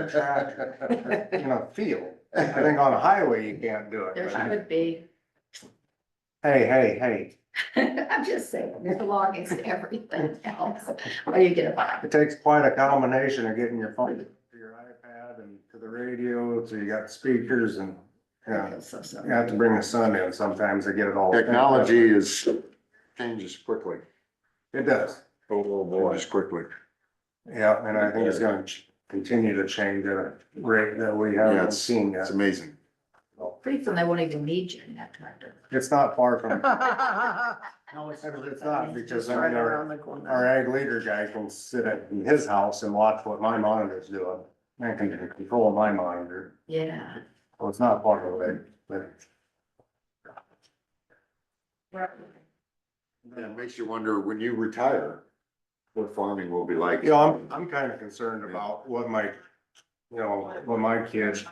track, you know, feel. I think on a highway, you can't do it. There but- should be. Hey, hey, hey, I'm just saying, it belongs to everything else. What do you get about? it takes quite a combination of getting your phone to your iPad and to the radio, so you got speakers and, I yeah. feel so sorry. You have to bring the sun in sometimes to get it all. Technology is, changes quickly, It does. Oh, changes quickly. Yeah, and I think it's gonna ch- continue to change at a rate that we Yeah, haven't it's- seen yet. It's amazing. Pretty soon they won't even need you in that tractor. It's not far from, No, it's it's not, because I Right mean, our, around the corner. our ag leader guy can sit at his house and watch what my monitor's doing. I can control my monitor, Yeah. so it's not far away, but. Yeah, It makes you wonder, when you retire, what farming will be like. You know, I'm, I'm kind of concerned about what my, you know, what my kids,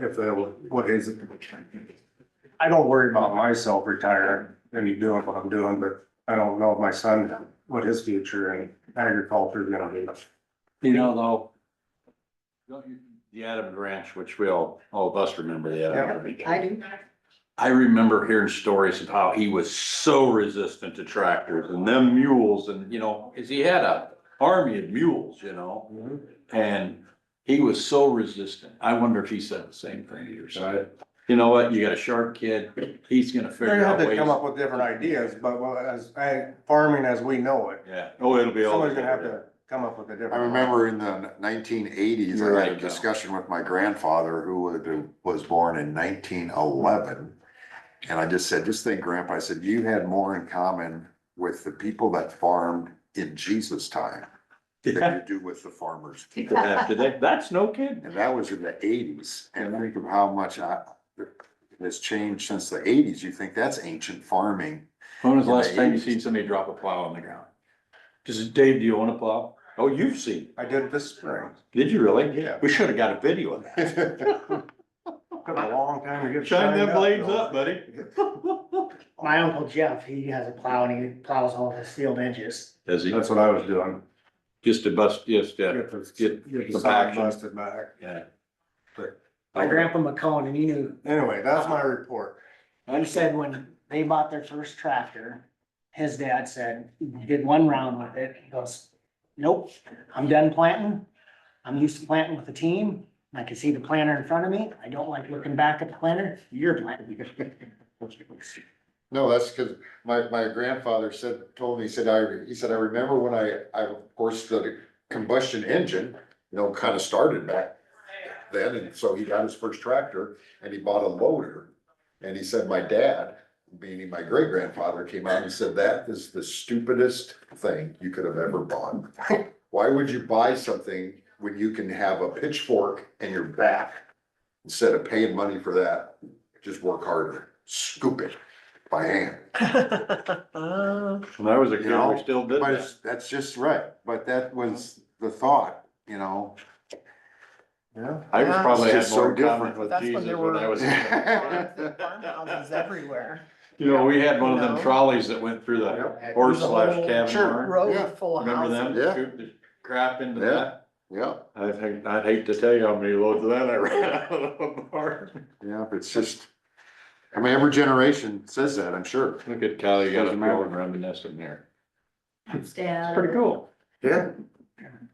if they, will- what is it? I don't worry about myself retiring and you doing what I'm doing, but I don't know if my son, what his future in agriculture is gonna be. You know, though. don't you- The Adam Ranch, which we all, all of us remember the Adam Ranch. I do. I remember hearing stories of how he was so resistant to tractors and them mules and, you know, cause he had a army of mules, you know? And he was so resistant. I wonder if he said the same thing to your son. You know what? You got a sharp kid. He's gonna They figure have out to come up ways. with different ideas, but well, as, ag- farming as we know it, Yeah. Oh, it'll be all. someone's gonna have to come up with a different. I remember in the nineteen eighties, I had a Right. discussion with my grandfather who would- was born in nineteen eleven. And I just said, just think, Grandpa, I said, you had more in common with the people that farmed in Jesus' time than you do with the farmers. Yeah, today. That's no kid. And that was in the eighties, and think of how much I, has changed since the eighties, you think that's ancient farming. When was the last time you seen somebody drop a plow on the ground? Just, Dave, do you own a plow? Oh, you've seen. I did this spring. Did you really? Yeah. We should have got a video of that. Took a long time to get. Shine shined them blades though. up, buddy. My uncle Jeff, he has a plow and he plows all his field edges. Does he? That's what I was doing. Just a bust, just, uh, Get the, Get- get the some side action. busted back. yeah. My grandpa McCone, and he knew, Anyway, that's my report. he said when they bought their first tractor, his dad said, "You did one round with it. He goes, nope, I'm done planting. I'm used to planting with a team. I can see the planter in front of me. I don't like looking back at the planter. You're planting. No, that's because my, my grandfather said, told me, he said, I, he said, I remember when I, I, of course, the combustion engine, you know, kind of started back then, and so he got his first tractor and he bought a loader. And he said, my dad, meaning my great grandfather, came out and said, that is the stupidest thing you could have ever bought. Why would you buy something when you can have a pitchfork in your back? Instead of paying money for that, just work harder, scoop it by hand. When I was a You kid, know, we still did But that. it's, that's just right, but that was the thought, you know? Yeah. I was probably It's had just more so different. common with That's when Jesus there when I were- was. Farmhouses everywhere. You know, we had one of them No. trolleys that went through the horse slash cabin Sure, barn. Row Yeah. of full Remember houses. them? Yeah. Scoop the crap into Yeah. that. Yeah, I think, I'd hate to tell you how many loads of that I ran out of the barn. yeah, but it's just, I mean, every generation says that, I'm sure. Look at Kyle, you got a Doesn't matter. growing reminiscent there. Yeah. Pretty cool. Yeah.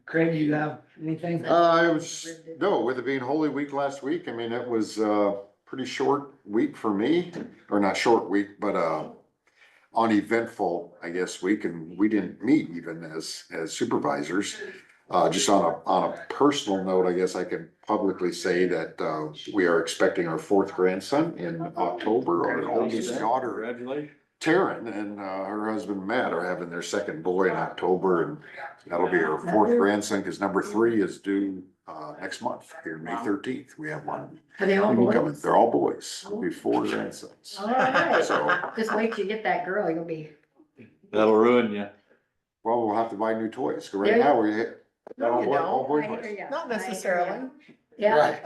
Craig, you have anything? Uh, it was, no, with it being Holy Week last week, I mean, it was a pretty short week for me, or not short week, but, uh, uneventful, I guess, week, and we didn't meet even as, as supervisors. Uh, just on a, on a personal note, I guess I can publicly say that, uh, we are expecting our fourth grandson in October, our oldest daughter Congratulations. Taryn and uh, her husband Matt are having their second boy in October, and that'll be her fourth grandson, because number three is due uh, next month, here, May thirteenth, we have one. Are they all coming. boys? They're all boys, It'll be four grandsons. Oh, All right. So- Just wait till you get that girl, you'll be. That'll ruin you. Well, we'll have to buy new toys, 'cause There right you- now, we're. No, you don't. All boy I hear toys. ya. Not I hear ya. necessarily. Yeah,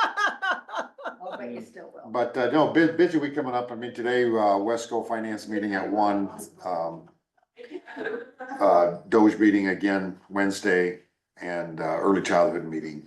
That's oh, but you still will. But uh, no, bu- busy week coming up, I mean, today, uh, Wesco Finance meeting at one, um, uh, Doge meeting again Wednesday, and uh, early childhood meeting